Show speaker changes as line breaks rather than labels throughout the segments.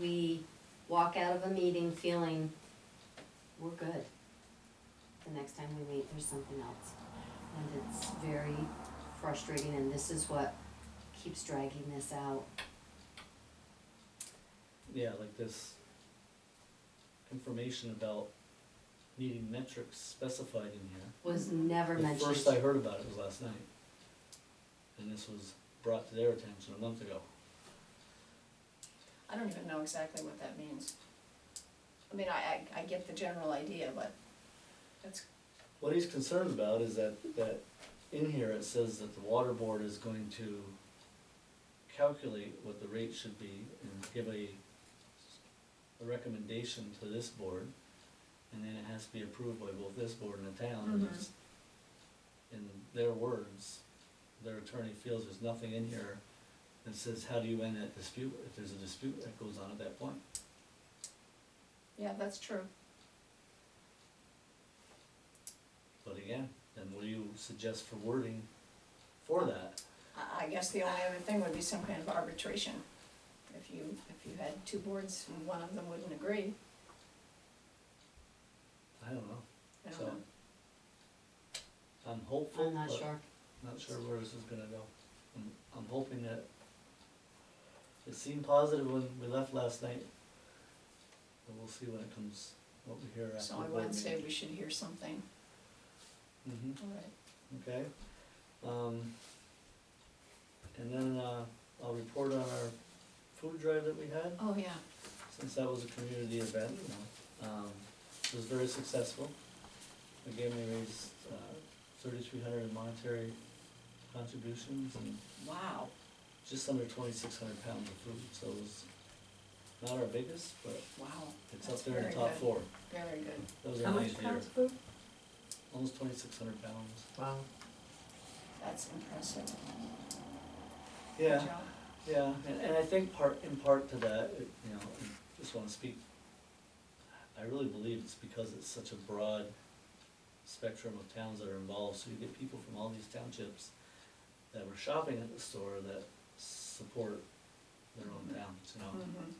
we walk out of a meeting feeling we're good. The next time we meet, there's something else. And it's very frustrating and this is what keeps dragging this out.
Yeah, like this information about needing metrics specified in here.
Was never mentioned.
Mm-hmm. The first I heard about it was last night. And this was brought to their attention a month ago.
I don't even know exactly what that means. I mean, I, I, I get the general idea, but that's,
What he's concerned about is that, that in here it says that the water board is going to calculate what the rate should be and give a, a recommendation to this board. And then it has to be approved by both this board and the town, and it's, in their words, their attorney feels there's nothing in here that says, how do you end that dispute, if there's a dispute that goes on at that point.
yeah, that's true.
But again, then what do you suggest for wording for that?
I, I guess the only other thing would be some kind of arbitration. If you, if you had two boards and one of them wouldn't agree,
I don't know.
I don't
So,
know.
I'm hopeful,
I'm not
but
sure.
not sure where this is gonna go. I'm, I'm hoping that, it seemed positive when we left last night. But we'll see when it comes, what we hear after
So
the
on
board
Wednesday,
meeting.
we should hear something,
hmm
all right.
okay? Um, and then, uh, I'll report on our food drive that we had,
Oh, yeah,
since that was a community event, um, it was very successful. The game they raised, uh, thirty-three hundred in monetary contributions and
wow,
just under twenty-six hundred pounds of food, so it was not our biggest, but
wow,
it's
That's
up there in the
very
top
good.
four.
very good.
That was
How
our
much
ninth year,
pounds food?
almost twenty-six hundred pounds.
Wow.
That's impressive. Good
Yeah,
job.
yeah, and, and I think part, in part to that, it- you know, I just wanna speak, I really believe it's because it's such a broad spectrum of towns that are involved, so you get people from all these townships that were shopping at the store that support their own towns, you know?
Mhm.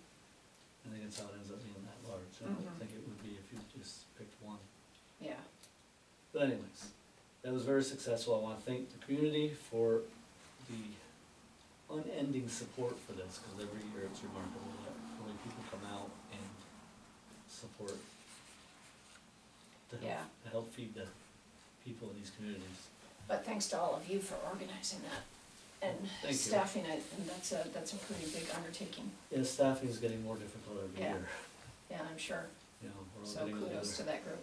I think that's how it ends up being that large, I don't
Mhm.
think it would be if you just picked one.
Yeah,
But anyways, that was very successful, I wanna thank the community for the unending support for this, cause every year it's remarkable that how many people come out and support to help,
Yeah.
to help feed the people in these communities.
but thanks to all of you for organizing that
Thank
and
you.
staffing it, and that's a, that's a pretty big undertaking.
Yeah, staffing is getting more difficult every
Yeah.
year,
Yeah, I'm sure,
you know, we're all
so
getting together.
kudos to that group.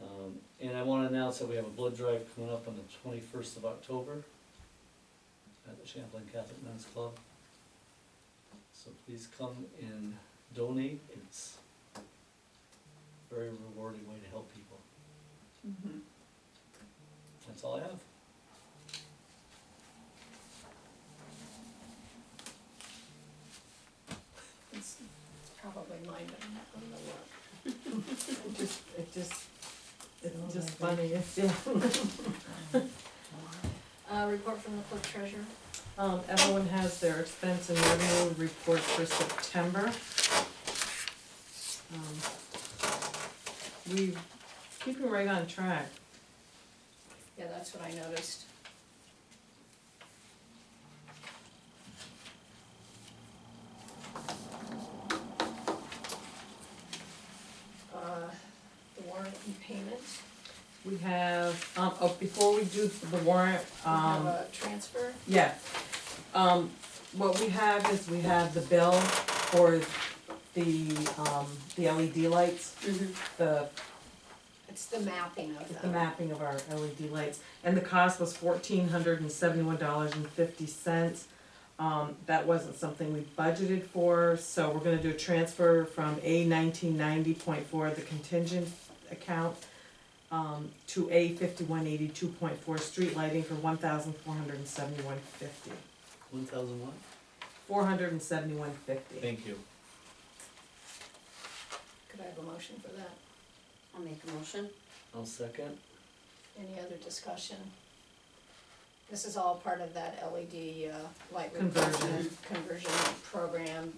Um, and I wanna announce that we have a blood drive coming up on the twenty-first of October at the Champlain Catholic Men's Club. So please come and donate, it's a very rewarding way to help people,
Mm-hmm.
Mhm.
that's all I have.
It's it's probably mine, but I'm not going to look.
It just, it just,
Oh,
it's just
my
funny, it's, yeah.
Uh, report from the clerk treasurer.
Um, everyone has their expense and revenue report for September. Um, We, keeping right on track,
Yeah, that's what I noticed. Uh, the warrant and payment,
we have, um, oh, before we do the warrant,
we have
um,
a transfer,
yeah. Um, what we have is we have the bill for the, um, the LED lights, the
it's the mapping of them.
the mapping of our LED lights, and the cost was fourteen hundred and seventy-one dollars and fifty cents. Um, that wasn't something we budgeted for, so we're gonna do a transfer from A nineteen ninety point four, the contingent account, um, to A fifty-one eighty-two point four, street lighting for one thousand four hundred and seventy-one fifty.
One thousand one?
Four hundred and seventy-one fifty.
Thank you.
Could I have a motion for that?
I'll make a motion.
I'll second,
Any other discussion? This is all part of that LED uh, light
Conversion.
replacement conversion program